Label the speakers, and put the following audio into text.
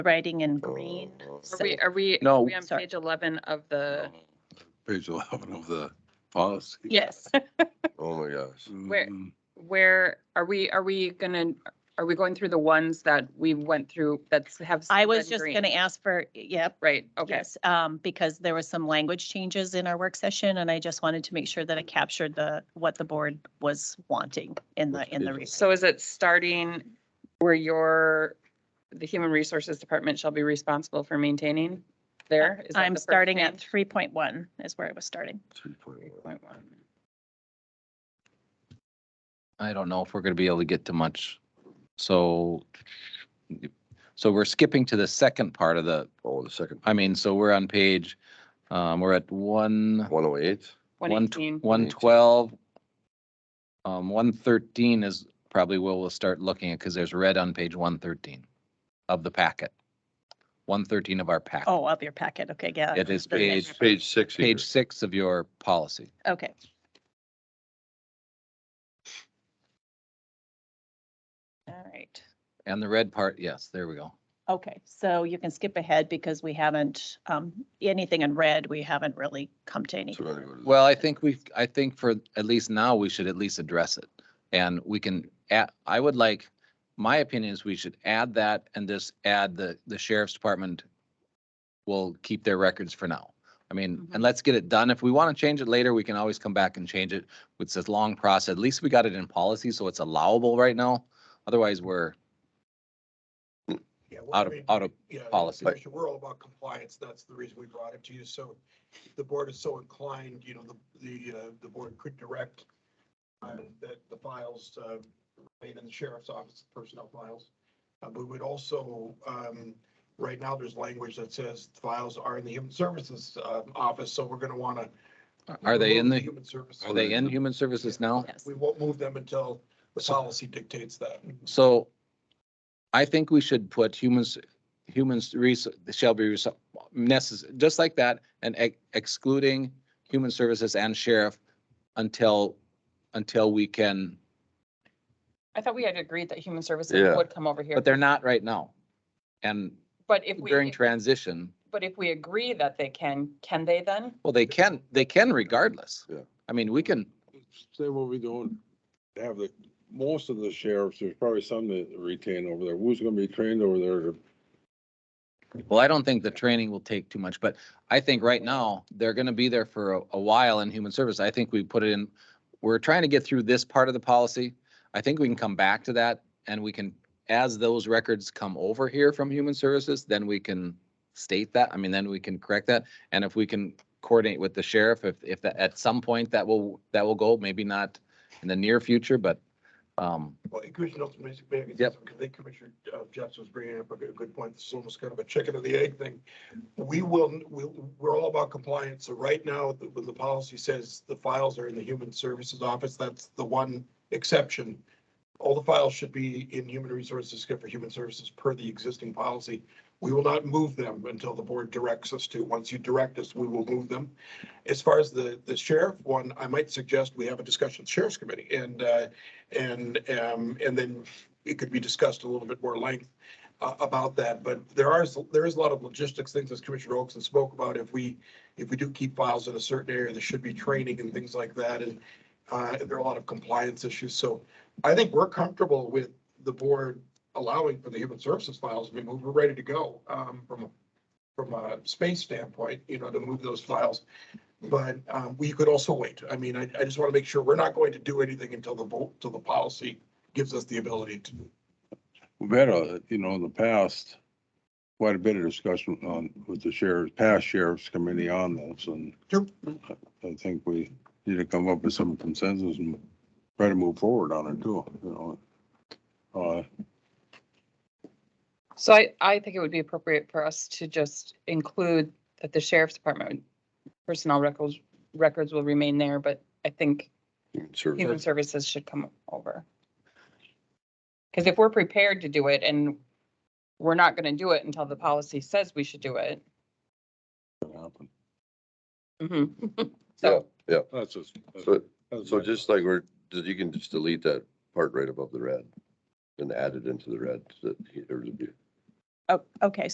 Speaker 1: writing in green.
Speaker 2: Are we, are we,
Speaker 3: No.
Speaker 2: are we on
Speaker 1: Sorry.
Speaker 2: page 11 of
Speaker 4: Oh,
Speaker 2: the,
Speaker 3: Page eleven of the policy.
Speaker 1: Yes.
Speaker 4: Oh, my gosh.
Speaker 2: Where-
Speaker 3: Mm,
Speaker 2: where, are we, are we gonna, are we going through the ones that we went through that's have?
Speaker 1: I was
Speaker 2: been
Speaker 1: just
Speaker 2: green?
Speaker 1: going to ask for, yep,
Speaker 2: Right, okay.
Speaker 1: yes, um, because there was some language changes in our work session and I just wanted to make sure that it captured the, what the board was wanting in the,
Speaker 3: Which
Speaker 1: in the.
Speaker 3: is-
Speaker 1: re-
Speaker 2: So is it starting where your, the human resources department shall be responsible for maintaining there? Is that
Speaker 1: I'm
Speaker 2: the first
Speaker 1: starting at
Speaker 2: change?
Speaker 1: three point one is where I was starting.
Speaker 4: 3.1.
Speaker 2: Point one.
Speaker 5: I don't know if we're gonna be able to get to much. So, so we're skipping to the second part of the,
Speaker 4: Oh, the second,
Speaker 5: I mean, so we're on page, um, we're at one,
Speaker 4: one oh eight?
Speaker 5: one, tw-
Speaker 2: 118.
Speaker 5: one twelve. Um, one thirteen is probably where we'll start looking at, because there's red on page one thirteen of the packet. One thirteen of our packet.
Speaker 1: Oh, of your packet. Okay, yeah.
Speaker 5: It is
Speaker 1: the next
Speaker 5: page,
Speaker 4: Page six here.
Speaker 5: page six of your policy.
Speaker 1: Okay. All right.
Speaker 5: And the red part, yes, there we go.
Speaker 1: Okay, so you can skip ahead because we haven't, um, anything in red, we haven't really come to any.
Speaker 4: So we're gonna go to the-
Speaker 5: Well, I think we, I think for, at least now, we should at least address it. And we can, add. I would like, my opinion is we should add that and just add the, the sheriff's department will keep their records for now. I mean,
Speaker 2: Mhm.
Speaker 5: and let's get it done. If we want to change it later, we can always come back and change it. It's a long process. At least we got it in policy, so it's allowable right now. Otherwise, we're
Speaker 6: Yeah, well,
Speaker 5: out
Speaker 6: I
Speaker 5: of,
Speaker 6: mean,
Speaker 5: out of,
Speaker 6: yeah,
Speaker 5: policy.
Speaker 6: Commissioner, We're all about compliance. That's the reason we brought it to you. So if the board is so inclined, you know, the, the, uh, the board could direct uh, that the files, uh, remain in the sheriff's office, personnel files. Uh, but we'd also, um, right now, there's language that says files are in the human services, uh, office, so we're gonna wanna.
Speaker 5: are they in the,
Speaker 6: Human services.
Speaker 5: are they in human services now?
Speaker 1: Yes.
Speaker 6: We won't move them until the policy dictates that.
Speaker 5: So I think we should put humans, humans res- shall be necessary, just like that, and ex- excluding human services and sheriff until, until we can,
Speaker 2: I thought we had agreed that human services
Speaker 4: Yeah.
Speaker 2: would come over here.
Speaker 5: but they're not right now. And
Speaker 2: But if we,
Speaker 5: during transition,
Speaker 2: but if we agree that they can, can they then?
Speaker 5: well, they can, they can regardless.
Speaker 4: Yeah.
Speaker 5: I mean, we can,
Speaker 7: Say what we don't have the, most of the sheriffs, there's probably some that retain over there. Who's gonna be trained over there?
Speaker 5: well, I don't think the training will take too much, but I think right now, they're gonna be there for a, a while in human service. I think we put it in, we're trying to get through this part of the policy. I think we can come back to that and we can, as those records come over here from human services, then we can state that. I mean, then we can correct that. And if we can coordinate with the sheriff, if, if that, at some point that will, that will go, maybe not in the near future, but, um,
Speaker 6: Well, and Commissioner Nelson, may I- may I get
Speaker 5: Yep.
Speaker 6: something? 'Cause I think Commissioner uh, Jeffs was bringing up a good, good point. This is almost kind of a chicken and the egg thing. We will, we, we're all about compliance. So right now, the, when the policy says the files are in the Human Services Office, that's the one exception. All the files should be in Human Resources, except for Human Services, per the existing policy. We will not move them until the board directs us to. Once you direct us, we will move them. As far as the, the sheriff one, I might suggest we have a discussion with the Sheriff's Committee and, uh, and, um, and then it could be discussed a little bit more length uh, about that, but there are, there is a lot of logistics things, as Commissioner Olson spoke about, if we, if we do keep files in a certain area, there should be training and things like that, and uh, there are a lot of compliance issues, so I think we're comfortable with the board allowing for the human services files, I mean, we're ready to go, um, from, from a space standpoint, you know, to move those files. But um, we could also wait. I mean, I, I just want to make sure we're not going to do anything until the vote, till the policy gives us the ability to.
Speaker 7: We've had a, uh, you know, in the past, quite a bit of discussion on, with the sheriff, past sheriff's committee on this, and
Speaker 6: Sure.
Speaker 7: I think we need to come up with some consensus and try to move forward on it too, you know. Uh,
Speaker 2: So I, I think it would be appropriate for us to just include that the sheriff's department personnel records, records will remain there, but I think
Speaker 4: Human Services.
Speaker 2: human services should come over. Because if we're prepared to do it and we're not going to do it until the policy says we should do it.
Speaker 7: it happened.
Speaker 2: mhm.
Speaker 4: Yeah,
Speaker 2: So,
Speaker 4: yeah.
Speaker 7: That's just.
Speaker 4: So,
Speaker 7: that's
Speaker 4: so
Speaker 7: my-
Speaker 4: just like we're, you can just delete that part right above the red and add it into the red. so that he- there's a-
Speaker 1: Oh, okay,